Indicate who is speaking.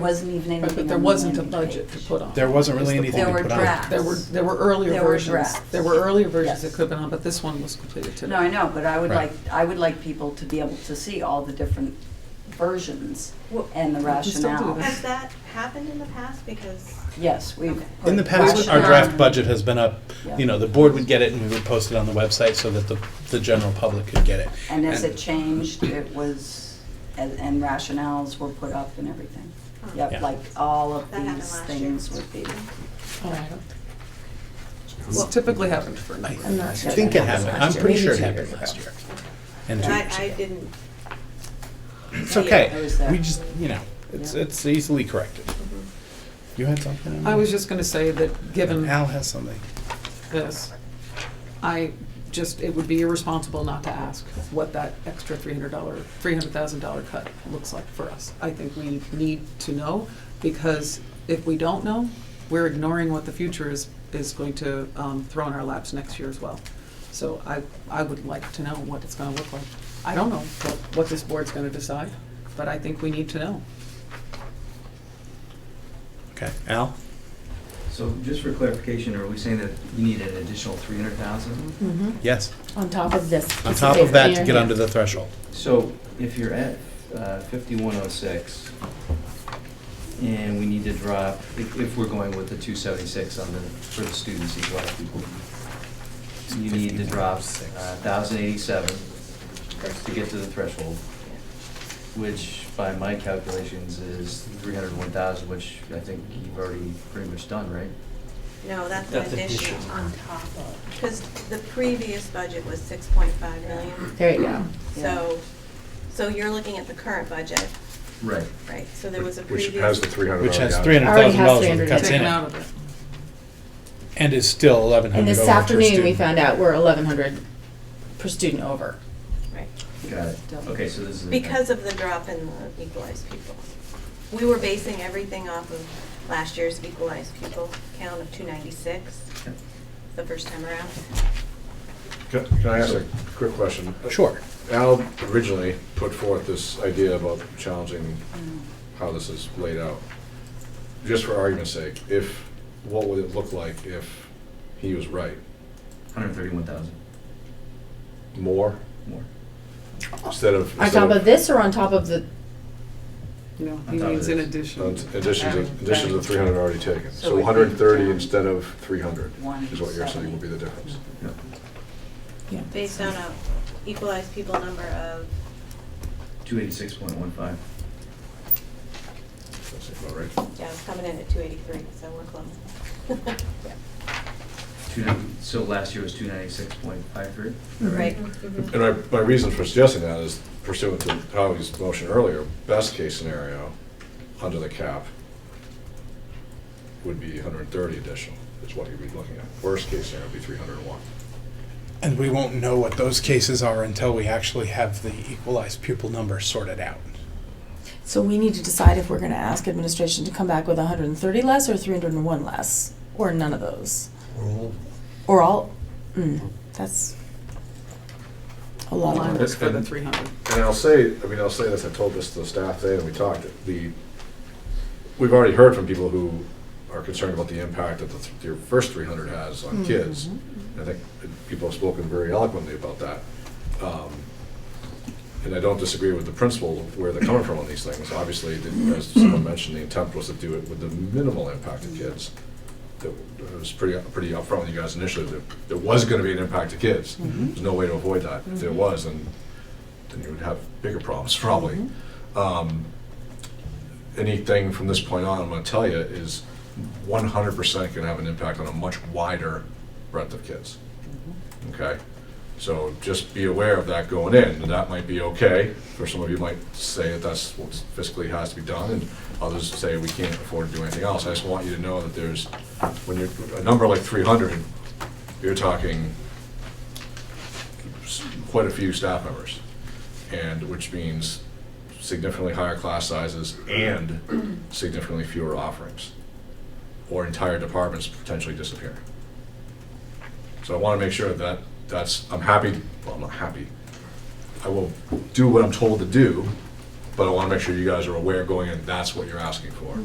Speaker 1: wasn't even anything
Speaker 2: But but there
Speaker 1: on the
Speaker 2: wasn't a
Speaker 1: landing
Speaker 2: budget to
Speaker 1: page.
Speaker 2: put on.
Speaker 3: There wasn't really
Speaker 2: Is the
Speaker 3: anything
Speaker 1: There
Speaker 3: to
Speaker 1: were
Speaker 3: put on.
Speaker 1: drafts.
Speaker 2: There were, there were earlier
Speaker 1: There were
Speaker 2: versions.
Speaker 1: drafts.
Speaker 2: There were earlier versions that
Speaker 1: Yes.
Speaker 2: could have been on, but this one was completed today.
Speaker 1: No, I know, but I would
Speaker 3: Right.
Speaker 1: like, I would like people to be able to see all the different versions
Speaker 4: Well,
Speaker 1: and the
Speaker 2: we can still do
Speaker 1: rationale.
Speaker 2: this.
Speaker 4: Has that happened in the past? Because,
Speaker 1: Yes, we've.
Speaker 4: Okay.
Speaker 1: put
Speaker 3: In the past, our
Speaker 1: rationale.
Speaker 3: draft budget has been up,
Speaker 1: Yeah.
Speaker 3: you know, the board would get it and we would post it on the website so that the, the general public could get it.
Speaker 1: And as it changed, it was, and and rationales were put up and everything.
Speaker 4: um,
Speaker 1: Yep,
Speaker 3: Yeah.
Speaker 1: like all of
Speaker 4: That happened
Speaker 1: these
Speaker 4: last year.
Speaker 1: things would be.
Speaker 2: Oh, I don't- It's typically happened for
Speaker 3: I
Speaker 2: night.
Speaker 3: I think it happened, I'm pretty sure it happened last year. And two
Speaker 4: I,
Speaker 3: years
Speaker 4: I
Speaker 3: ago.
Speaker 4: didn't.
Speaker 3: It's
Speaker 4: see it.
Speaker 3: okay,
Speaker 1: I was there.
Speaker 3: we just, you know, it's,
Speaker 1: Yeah.
Speaker 3: it's easily corrected.
Speaker 4: Mhm.
Speaker 3: You had something?
Speaker 2: I was just gonna say that, given
Speaker 3: Al has something.
Speaker 2: this, I just, it would be irresponsible not to ask what that extra three hundred dollar, three hundred thousand dollar cut looks like for us. I think we need to know, because if we don't know, we're ignoring what the future is, is going to um, throw in our laps next year as well. So I, I would like to know what it's gonna look like. I don't know what, what this board's gonna decide, but I think we need to know.
Speaker 3: Okay, Al?
Speaker 5: So just for clarification, are we saying that you need an additional three hundred thousand?
Speaker 6: Mm-hmm,
Speaker 3: Yes,
Speaker 6: on top of this.
Speaker 3: on
Speaker 6: piece
Speaker 3: top of
Speaker 6: paper
Speaker 3: that to
Speaker 6: here,
Speaker 3: get
Speaker 6: yeah.
Speaker 3: under the threshold.
Speaker 5: So if you're at fifty-one oh six, and we need to drop, if, if we're going with the two seventy-six on the, for the students, these white people, you need to drop uh, thousand eighty-seven to get to the threshold, which by my calculations is three hundred one thousand, which I think you've already pretty much done, right?
Speaker 4: No, that's
Speaker 5: That's
Speaker 4: an addition
Speaker 5: addition.
Speaker 4: on top of, because the previous budget was six point five million.
Speaker 6: There you go.
Speaker 4: So, so you're looking at the current budget,
Speaker 5: Right.
Speaker 4: right? So there was a
Speaker 7: Which
Speaker 4: previous.
Speaker 7: has the 300
Speaker 3: Which has three
Speaker 7: already on it.
Speaker 6: Already
Speaker 3: hundred thousand
Speaker 6: has
Speaker 3: dollars when it
Speaker 6: 300.
Speaker 3: cuts in
Speaker 2: Taken
Speaker 3: it,
Speaker 2: out of it.
Speaker 3: and is still eleven
Speaker 6: And
Speaker 3: hundred
Speaker 6: this
Speaker 3: over per
Speaker 6: afternoon, we
Speaker 3: student.
Speaker 6: found out we're eleven hundred per student over.
Speaker 4: Right,
Speaker 5: Got it. Okay, so this is.
Speaker 4: because of the drop in the equalized people. We were basing everything off of last year's equalized people count of two ninety-six, the first time around.
Speaker 7: Can can I ask a quick question?
Speaker 3: Sure.
Speaker 7: Al originally put forth this idea about challenging how this is laid out. Just for argument's sake, if, what would it look like if he was right?
Speaker 5: Hundred thirty-one thousand
Speaker 7: More
Speaker 5: more.
Speaker 7: instead of.
Speaker 6: On top of this or on top of the,
Speaker 2: No,
Speaker 5: On
Speaker 2: he
Speaker 5: top of
Speaker 2: means in
Speaker 5: this.
Speaker 2: addition.
Speaker 7: Additions of, additions of three hundred already taken.
Speaker 1: So
Speaker 7: So
Speaker 1: we
Speaker 7: one hundred and thirty
Speaker 1: think, um,
Speaker 7: instead of three hundred is what you're
Speaker 1: 170.
Speaker 7: saying would be the difference.
Speaker 4: based on a equalized people number of,
Speaker 5: Two eighty-six point one five.
Speaker 7: That's about right.
Speaker 4: yeah, it's coming in at two eighty-three, so we're close.
Speaker 5: Two ninety, so last year was two ninety-six point five three?
Speaker 4: Right.
Speaker 7: Mm-hmm. And my, my reason for suggesting that is pursuant to Howie's motion earlier, best case scenario, under the cap, would be hundred and thirty additional, is what you'd be looking at. Worst case scenario would be three hundred and one.
Speaker 3: And we won't know what those cases are until we actually have the equalized pupil number sorted out.
Speaker 8: So we need to decide if we're gonna ask administration to come back with hundred and thirty less or three hundred and one less, or none of those. Or all, mm, that's a lot of
Speaker 2: Line
Speaker 8: work.
Speaker 2: was for the three hundred.
Speaker 7: And I'll say, I mean, I'll say this, I told this to the staff today and we talked, the, we've already heard from people who are concerned about the impact that the, th- your first three hundred has on kids. I think people have spoken very eloquently about that. Um, And I don't disagree with the principle of where they're coming from on these things. Obviously, the- as someone mentioned, the intent was to do it with the minimal impact to kids. That It was pretty, pretty upfront with you guys initially, that there was gonna be an impact to kids. There's no way to avoid that. If there was, then then you would have bigger problems probably. Um, anything from this point on, I'm going to tell you, is 100% going to have an impact on a much wider breadth of kids. Okay? So just be aware of that going in, and that might be okay. For some of you might say that that's what fiscally has to be done, and others say we can't afford to do anything else. I just want you to know that there's, when you're, a number like 300, you're talking s- quite a few staff members, and which means significantly higher class sizes and significantly fewer offerings, or entire departments potentially disappearing. So I want to make sure that that's, I'm happy, well, I'm not happy. I will do what I'm told to do, But I want to make sure you guys are aware going in, that's what you're asking for.